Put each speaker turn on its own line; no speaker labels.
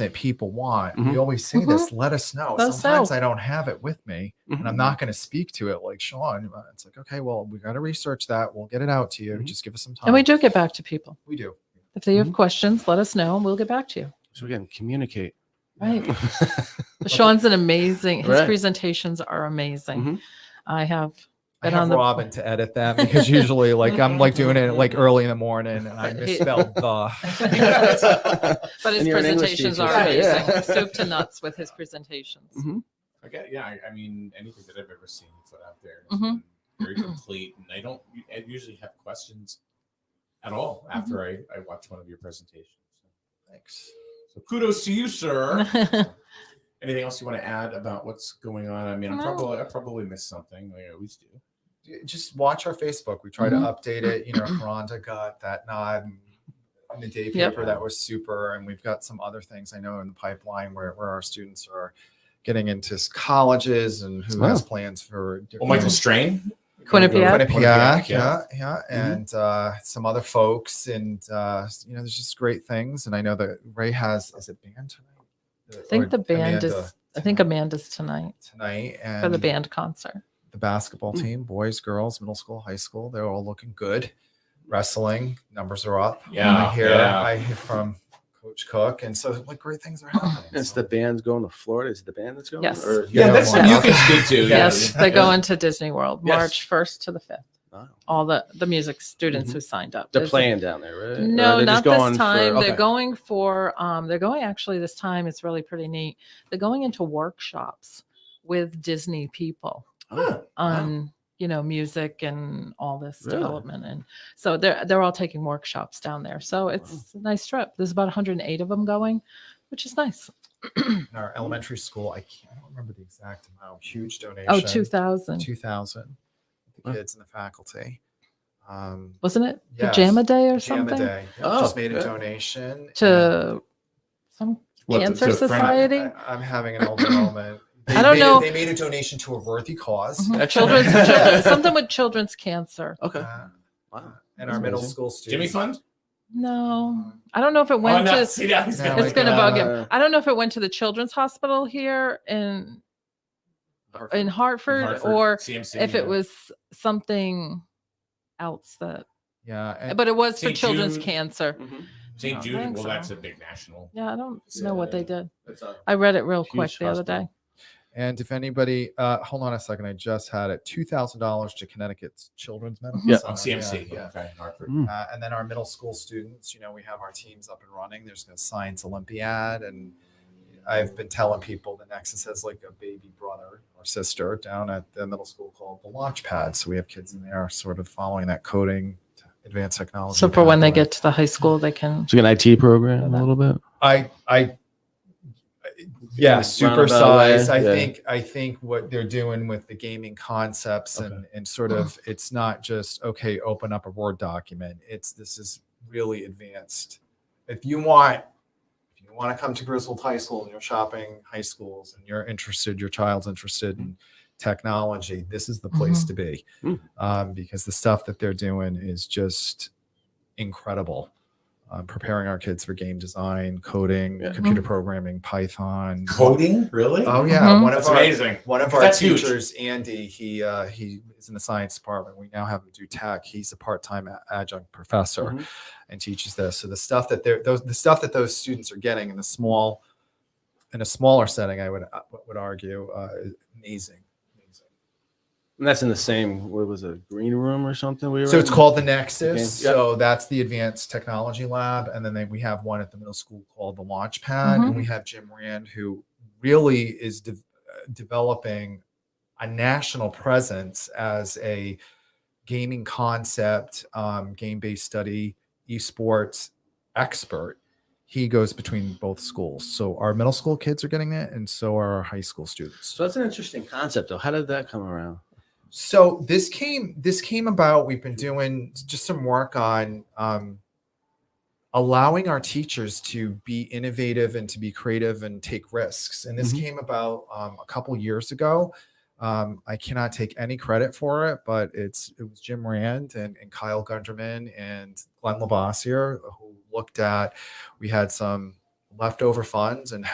that people want.
Mhm.
We always say this, let us know.
Mm-hmm. Let us
Sometimes
know.
I don't have it with me and I'm
Mhm.
not going to speak to it like Sean. Uh, It's like, okay, well, we got to research that. We'll get it out to you.
Mhm.
Just give us some time.
And we do get back to people.
We do.
If they have
Mhm.
questions, let us know and we'll get back to you.
So again, communicate.
Right. Sean's an amazing, his
Right.
presentations are amazing.
Mhm.
I have
I
Been on
have
the-
Robin to edit that because usually, like, I'm like doing it like early in the morning and I
But he-
misspelled the.
Mhm.
But his
And you're an English
presentations
teacher.
are
Right,
amazing.
yeah.
Soup to nuts with his presentations.
Okay, yeah, I, I mean, anything that I've ever seen put out there is
Mhm.
very complete, and I don't I usually have questions at all after
Mm-hmm.
I, I watch one of your presentations.
Thanks.
So kudos to you, sir.
Mm-hmm.
Anything else you want to add about what's going on? I mean, I'm
No.
probably I probably missed something. Like I always do. Oh,
Just watch our Facebook. We try
Mhm.
to update it. You know, Rhonda got that nod and- in the day
Yep.
paper. That was super. And we've got some other things I know in the pipeline where, where our students are getting into s- colleges and who has
Wow.
plans for.
Well,
different-
Michael Strain.
Quinnipiac.
Quinnipiac,
yeah.
yeah, yeah,
Mm-hmm.
and uh, some other folks, and uh, you know, there's just great things. And I know that Ray has is it band tonight?
I think the band
Amanda
is, I think Amanda's tonight
tonight, and
for the band concert.
the basketball
Mm.
team, boys, girls, middle school, high school, they're all looking good. Wrestling numbers are up.
Yeah,
I hear
yeah.
I hear from Coach Cook, and so like great things are happening.
It's
so-
the band's going to Florida. Is it the band that's going?
Yes.
Or,
Yeah,
Yeah,
that's
yeah.
something you can speak to. yeah.
Yes, they're
Yeah.
going to Disney World,
Yes.
March 1st to the 5th.
Wow.
All the, the music students
Mhm.
who signed up.
They're
There's-
playing down there, right? Or are
No,
they
not
Uh, just
this
going for- Oh,
time.
okay.
They're going for, um, they're going actually this time. It's really pretty neat. They're going into workshops with Disney people
Oh,
on, you know, music and all this
Really?
development. And so they're, they're all taking workshops down there. So it's a nice trip. There's about 108 of them going, which is nice.
in our elementary school. I can't I don't remember the exact amount. Huge donation.
Oh, 2000.
Two thousand. The
Wow.
kids and the faculty. Um,
Wasn't it
Yes.
pajama day or
Jam a
something?
day. Yep,
Oh,
just made a
good.
donation and-
to some
What, to-
cancer
to friend-
society.
I, am having an older moment. They
I don't
made-
know-
They made a donation to a worthy because
Mhm.
Excellent.
Children's, chil- something with children's cancer.
Okay.
Uh,
Wow.
and
That's
our middle
amazing.
school students.
Jimmy Fund.
No, I don't know if it
Oh,
went
no,
to.
see, now he's
Now
gonna
I
it's
make
get
gonna
it.
bug
Uh,
him. I don't know if it went to the children's hospital here in in Hartford,
Hartford,
or
CMC,
if it
yeah.
was something else that.
Yeah, and
But it was for
St.
children's
Jude.
cancer.
Mhm.
St.
I
Jude.
think
Well,
so.
that's a big national.
Yeah, I don't know what they
Yeah.
did. I read it real quick
Huge
the other day.
hospital.
and if anybody, uh, hold on a second, I just had it. Two thousand dollars to Connecticut's Children's Medical
Yeah.
Oh,
Center.
CMC.
Yeah, yeah.
Okay, Hartford.
Mm.
Uh, and then our middle school students, you know, we have our teams up and running. There's a science Olympiad, and I've been telling people that Nexus has like a baby brother or sister down at the middle school called the Launchpad. So we have kids in there sort of following that coding, t- advanced technology.
So for when they
pathway.
get to the high school, they can.
It's like an IT program a little bit.
I, I, yeah,
Roundabout
supersize.
way,
I
yeah.
think, I think what they're doing with the gaming concepts and, and sort of, it's not just, okay, open up a Word document. It's, this is really advanced. If you want, if you want to come to Griswold High School and you're shopping high schools and you're interested, your child's interested in technology, this is the place to be.
Mm.
Um, because the stuff that they're doing is just incredible um, preparing our kids for game design, coding,
Yeah.
computer programming, Python.
Coding? Really?
Mm-hmm. Oh yeah,
Mhm.
one of
Um, That's
our
amazing.
one of our
That's huge.
teachers, Andy. He uh, he is in the science department. We now have him do tech. He's a part-time a- adjunct professor
Mm-hmm.
Mhm.
and teaches this. So the stuff that they're those the stuff that those students are getting in the small in a smaller setting, I would uh, would argue, uh, is amazing. amazing.
And that's in the same. What was it? Green room or something? We were
So it's
in?
called the Nexus.
Okay, yep.
So that's the Advanced Technology Lab, and then they, we have one at the middle school called the Launchpad,
Mm-hmm.
and we have Jim Rand, who really is de- uh, developing a national presence as a gaming concept, um, game-based study, esports expert. He goes between both schools, so our middle school kids are getting it, and so are our high school students.
So that's an interesting concept, though. How did that come around?
So this came this came about. We've been doing just some work on um, allowing our teachers to be innovative and to be creative and take risks. And this
Mhm.
came about um, a couple years ago. Um, I cannot take any credit for it, but it's it was Jim Rand and, and Kyle Gunderman and Glenn Labossiere who looked at. We had some leftover funds and